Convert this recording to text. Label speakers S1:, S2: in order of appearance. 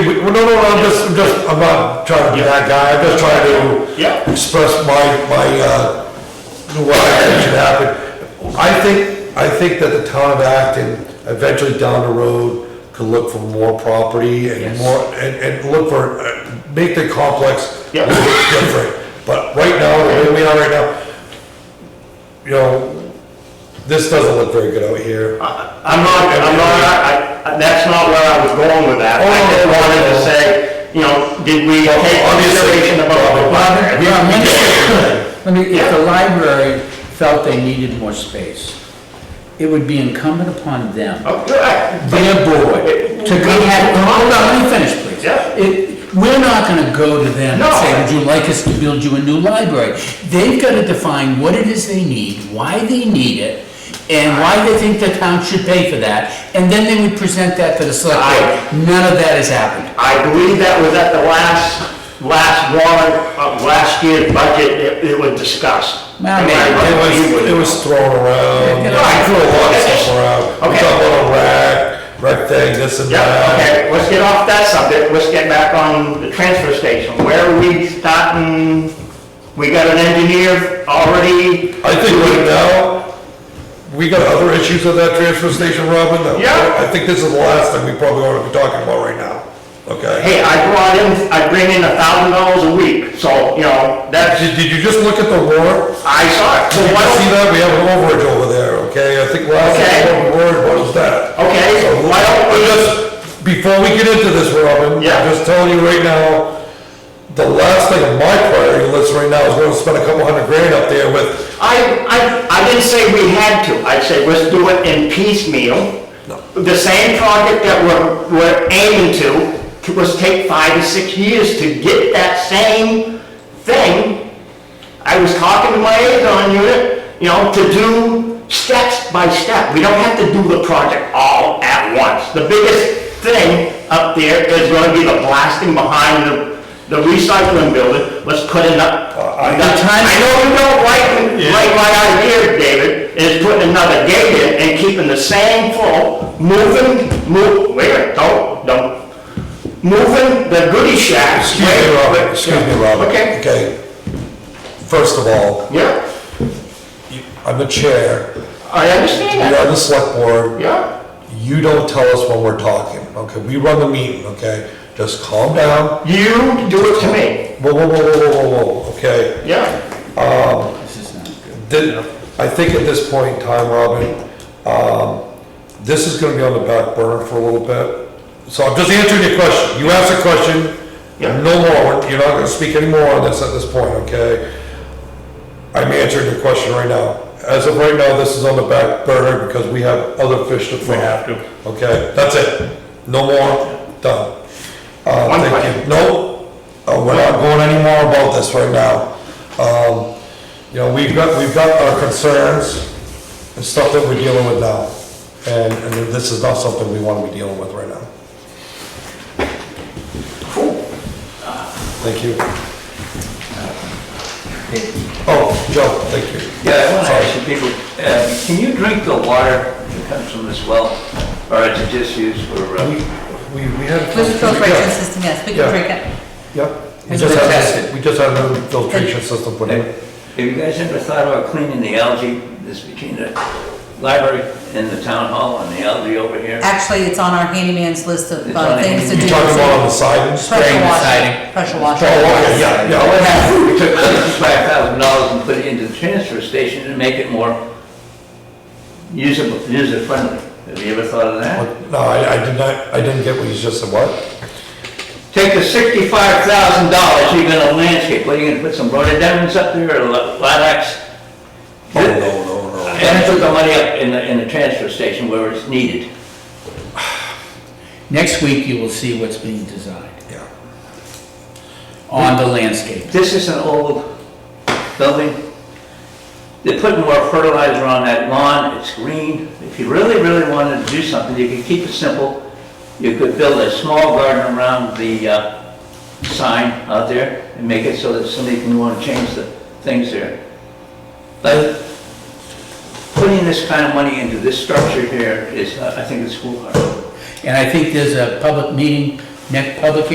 S1: Well, no, no, no, I'm just, I'm just, I'm not trying to be that guy, I'm just trying to
S2: Yeah.
S1: express my, my, uh, what I think should happen. I think, I think that the town of Acton, eventually down the road, could look for more property and
S2: Yes.
S1: more, and, and look for, uh, make the complex
S2: Yeah.
S1: look different. But right now, the way we are right now, you know, this doesn't look very good out here.
S2: I'm not, I'm not, I, I- that's not where I was going with that. I just
S1: Oh,
S2: wanted to say, you know, did we take consideration about the
S3: Bob,
S2: weather?
S3: let me- let me, if the library felt they needed more space, it would be incumbent upon them,
S2: Oh, good.
S3: their board, to go, hold on, let me finish, please.
S2: Yeah.
S3: It, we're not gonna go to them and say,
S2: No.
S3: would you like us to build you a new library? They've gotta define what it is they need, why they need it, and why they think the town should pay for that, and then they would present that to the select board. None of that has happened.
S2: I believe that was at the last, last warrant, of last year's budget, it, it was discussed.
S3: Well, maybe.
S2: Am I
S1: It
S2: right? You
S1: was,
S2: would
S1: it was thrown around,
S3: Yeah,
S1: I
S3: yeah.
S1: threw a lot of stuff around, we
S2: Okay.
S1: talked about a rack, rec thing, this and
S2: Yeah,
S1: that.
S2: okay, let's get off that subject, let's get back on the transfer station. Where are we starting? We got an engineer already?
S1: I think right now, we got other issues at that transfer station, Robin, that-
S2: Yeah.
S1: I think this is the last thing we probably ought to be talking about right now, okay?
S2: Hey, I brought in, I bring in a thousand dollars a week, so, you know, that's,
S1: Did, did you just look at the warrant?
S2: I saw it. So
S1: Did you
S2: why
S1: see
S2: don't,
S1: that, we have an overage over there, okay, I think last
S2: Okay.
S1: time we were, what was that?
S2: okay,
S1: So,
S2: why don't we just,
S1: just, before we get into this, Robin, I'm
S2: Yeah.
S1: just telling you right now, the last thing on my priority list right now is going to spend a couple hundred grand up there with,
S2: I, I, I didn't say we had to, I said, let's do it in piecemeal. The same project that we're, we're aiming to, to- was take five to six years to get that same thing. I was talking to my liaison unit, you know, to do steps by step. We don't have to do the project all at once. The biggest thing up there is gonna be the blasting behind the, the recycling building. Let's put it up.
S1: I-
S2: The time- I know you don't like, like my idea, David, is putting another gate in and keeping the same flow, moving, move, wait, a minute, don't, don't. Moving the goodie shacks.
S1: excuse me,
S2: wait,
S1: Robin,
S2: wait,
S1: excuse me,
S2: yeah,
S1: Robin.
S2: Okay,
S1: Okay. First of all,
S2: yeah.
S1: I'm the chair,
S2: I understand
S1: you're
S2: that.
S1: on the select board,
S2: Yeah.
S1: you don't tell us when we're talking, okay? We run the meeting, okay? Just calm down.
S2: You do it to me.
S1: Whoa, whoa, whoa, whoa, whoa, whoa, whoa, okay?
S2: Yeah.
S3: This is not good.
S1: Then, I think at this point in time, Robin, um, this is gonna be on the back burner for a little bit. So I'm just answering your question. You asked a question,
S2: Yeah.
S1: no more, you're not gonna speak any more on this at this point, okay? I'm answering your question right now. As of right now, this is on the back burner because we have other fish to fry. We have to. Okay, that's it. No more, done. Uh,
S2: One
S1: thank
S2: question.
S1: you. No, uh, we're not going any more about this right now. Um, you know, we've got, we've got our concerns and stuff that we're dealing with now. And, and this is not something we wanna be dealing with right now. Thank you. Oh, Joe, thank you.
S4: Yeah, I want to
S1: Sorry.
S4: ask you people, uh, can you drink the water that comes from this well? Or is it just used for, uh,
S1: Um, We, we had. a
S5: With the filtration
S1: Yeah,
S5: system, yes, we
S1: Yeah.
S5: can drink it.
S1: Yeah. We
S5: It's
S1: just had,
S4: tested.
S1: this- we just had a new filtration system put in.
S4: have you guys ever thought about cleaning the algae that's between the library and the town hall and the algae over here?
S5: Actually, it's on our handyman's list of
S4: It's
S5: uh,
S4: on the
S5: things to do.
S1: You talking about on the sidings? Oh,
S5: Pressure
S3: spraying the
S5: washer,
S3: siding.
S5: pressure washer.
S1: okay, yeah, yeah. I'll have-
S4: We took sixty-five thousand dollars and put it into the transfer station to make it more usable, user-friendly. Have you ever thought of that?
S1: No, I, I did not, I didn't get what you just said, what?
S4: Take the sixty-five thousand dollars, you're gonna landscape, what, are you gonna put some rhododendrons up there or la- lilacs?
S1: Oh, no, no, no.
S4: And put the money up in the, in the transfer station where it's needed.
S3: Next week, you will see what's being designed
S1: Yeah.
S3: on the landscape.
S4: This is an old building. They're putting more fertilizer on that lawn, it's green. If you really, really wanted to do something, you could keep it simple. You could build a small garden around the, uh, sign out there and make it so that somebody can wanna change the things there. But putting this kind of money into this structure here is, uh, I think it's foolhardy.
S3: And I think there's a public meeting, next public